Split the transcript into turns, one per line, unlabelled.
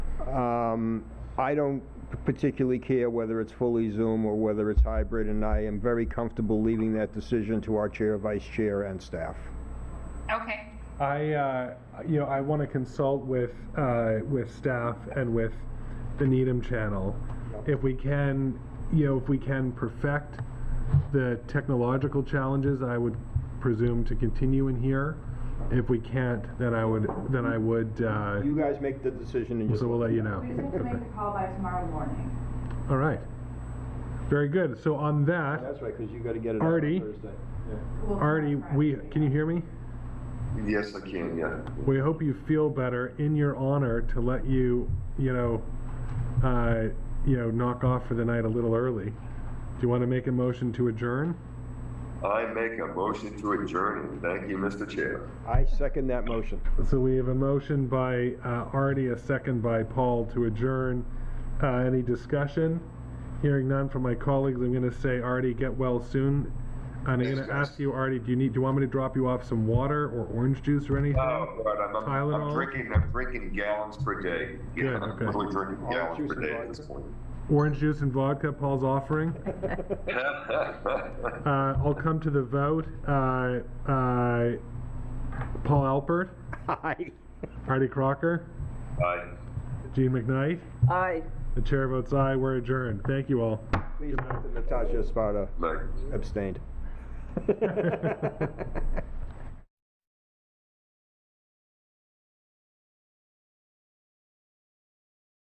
Um, I don't particularly care whether it's fully Zoom or whether it's hybrid, and I am very comfortable leaving that decision to our chair, vice chair, and staff.
Okay,
I, uh, you know, I want to consult with, uh, with staff and with the Needham channel. If we can, you know, if we can perfect the technological challenges, I would presume to continue in here. If we can't, then I would, then I would, uh,
You guys make the decision and you.
so we'll let you know.
We just have to make the call by tomorrow morning.
All right. Very good. So on that,
That's right, because you got to get it out on
Artie?
Thursday.
We'll call
Artie,
Friday.
we, can you hear me?
Yes, I can, yeah.
We hope you feel better in your honor to let you, you know, uh, you know, knock off for the night a little early. Do you want to make a motion to adjourn?
I make a motion to adjourn. Thank you, Mr. Chair.
I second that motion.
So we have a motion by uh, Artie, a second by Paul to adjourn. Uh, any discussion? Hearing none from my colleagues, I'm going to say, Artie, get well soon. And I'm
Thanks,
going to
guys.
ask you, Artie, do you need? Do you want me to drop you off some water or orange juice or anything?
Oh, God, I'm, I'm, I'm
Tylenol?
drinking, I'm drinking gallons per day. Yeah,
Good,
I'm
okay.
literally drinking
Orange
gallons
juice
per
and
day at
vodka.
this point.
Orange juice and vodka. Paul's offering. Uh, I'll come to the vote. Uh, uh, Paul Alpert,
Aye.
Artie Crocker,
Aye.
Gene McKnight.
Aye.
The chair votes aye. We're adjourned. Thank you all.
Please note that Natasha Sparta
Like,
abstained.